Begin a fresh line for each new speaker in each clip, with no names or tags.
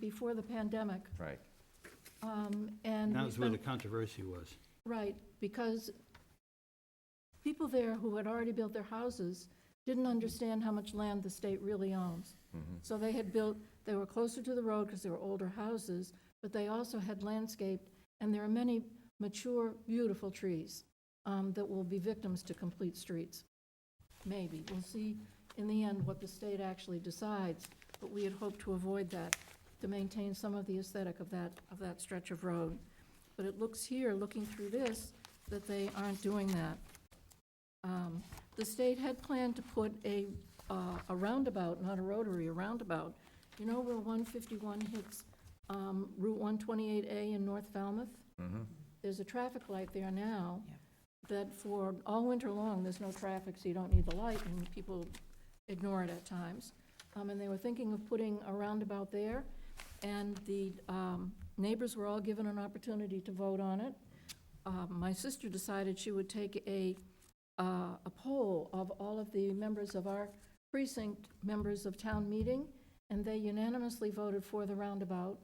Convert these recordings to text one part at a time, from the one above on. before the pandemic.
Right.
um, And
That
we
was where the
spent,
controversy was.
right, because people there who had already built their houses didn't understand how much land the state really owns. So they had built, they were closer to the road because they were older houses, but they also had landscaped, and there are many mature, beautiful trees um, that will be victims to complete streets. Maybe. We'll see in the end what the state actually decides, but we had hoped to avoid that, to maintain some of the aesthetic of that, of that stretch of road. But it looks here, looking through this, that they aren't doing that. Um, The state had planned to put a, uh, a roundabout, not a rotary, a roundabout. You know where 151 hits um, Route 128A in North Falmouth? There's a traffic light there now that for all winter long, there's no traffic, so you don't need the light, and people ignore it at times. Um, And they were thinking of putting a roundabout there, and the um, neighbors were all given an opportunity to vote on it. Um, My sister decided she would take a, uh, a poll of all of the members of our precinct, members of town meeting, and they unanimously voted for the roundabout.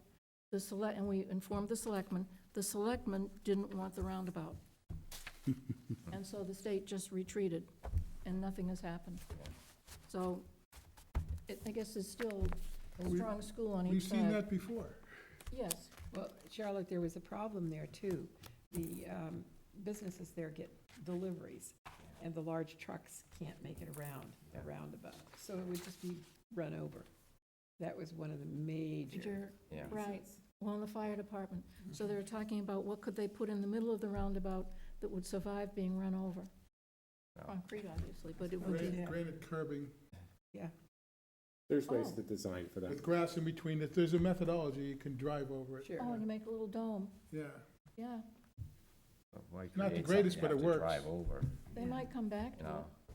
The select, and we informed the selectmen, the selectmen didn't want the roundabout. And so the state just retreated, and nothing has happened. So it- I guess it's still a
Well, we-
strong school on
We've
each
seen
side.
that before.
Yes,
Well, Charlotte, there was a problem there too. The um, businesses there get deliveries, and the large trucks can't make it around, the roundabout. So it would just be run over. That was one of the major
Major-
Yeah.
right, well, in the fire department. So they were talking about what could they put in the middle of the roundabout that would survive being run over?
No.
Concrete, obviously, but it would be,
Granite granite curbing
There's ways
Oh.
to design for that.
with grass in between it. There's a methodology. You can drive over it.
Sure.
oh, and you make a little dome,
Yeah.
yeah.
Not the greatest, but it works.
Drive over,
They
Yeah.
might come back
you
to
know,
it.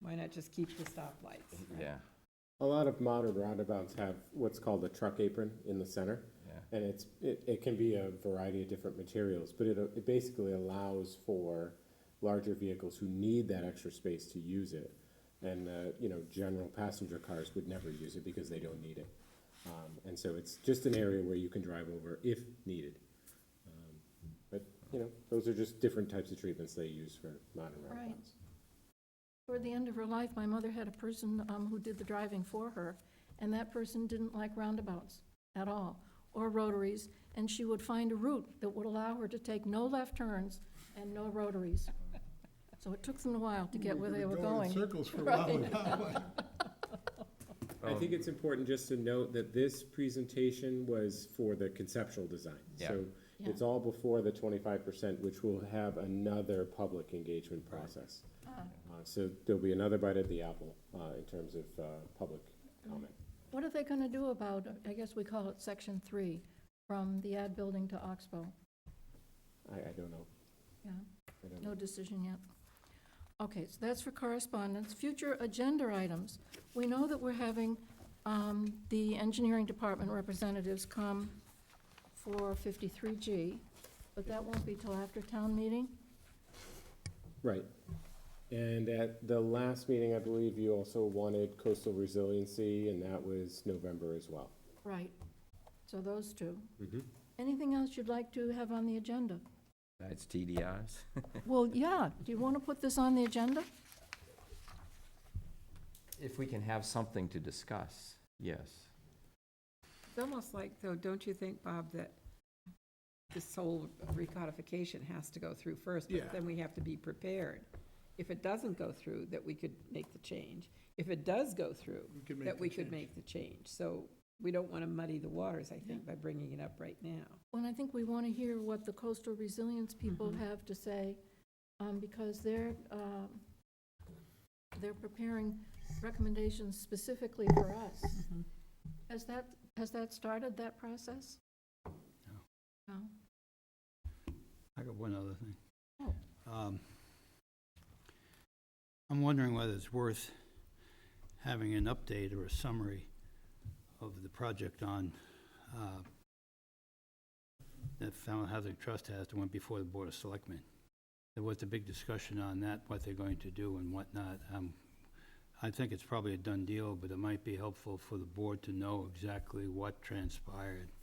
Why not just keep the stoplights? right?
yeah,
A lot of modern roundabouts have what's called a truck apron in the center.
yeah.
And it's, it, it can be a variety of different materials, but it, it basically allows for larger vehicles who need that extra space to use it. And, uh, you know, general passenger cars would never use it because they don't need it. Um, and so it's just an area where you can drive over if needed. Um, But, you know, those are just different types of treatments they use for modern
Right.
roundabouts.
Toward the end of her life, my mother had a person um, who did the driving for her, and that person didn't like roundabouts at all, or rotaries, and she would find a route that would allow her to take no left turns and no rotaries. So it took them a while to get where they were
in
going.
circles for a while with that one.
I think it's important just to note that this presentation was for the conceptual design.
Yeah.
So it's all before the twenty-five percent, which will have another public engagement process. Uh, So there'll be another bite at the apple, uh, in terms of, uh, public comment.
What are they going to do about, I guess we call it Section 3, from the ad building to Oxbow?
I, I don't know.
Yeah.
I don't know.
No decision yet. Okay, so that's for correspondence. Future agenda items. We know that we're having um, the engineering department representatives come for 53G, but that won't be till after town meeting?
Right. And at the last meeting, I believe you also wanted coastal resiliency, and that was November as well.
Right. So those two.
Mhm.
Anything else you'd like to have on the agenda?
It's TDRs.
Well, yeah, do you want to put this on the agenda?
If we can have something to discuss, yes.
It's almost like, though, don't you think, Bob, that this whole recodification has to go through first?
Yeah.
But then we have to be prepared. If it doesn't go through, that we could make the change. If it does go through,
We can make
that
the
we could
change.
make the change. So we don't want to muddy the waters, I think, by bringing it up right now.
Well, I think we want to hear what the coastal resilience people have to say, um, because they're, um, they're preparing recommendations specifically for us. Has that, has that started, that process? No.
I got one other thing.
Oh.
Um, I'm wondering whether it's worth having an update or a summary of the project on, uh, that Falmouth Housing Trust has that went before the Board of Selectmen. There was a big discussion on that, what they're going to do and what not. Um, I think it's probably a done deal, but it might be helpful for the board to know exactly what transpired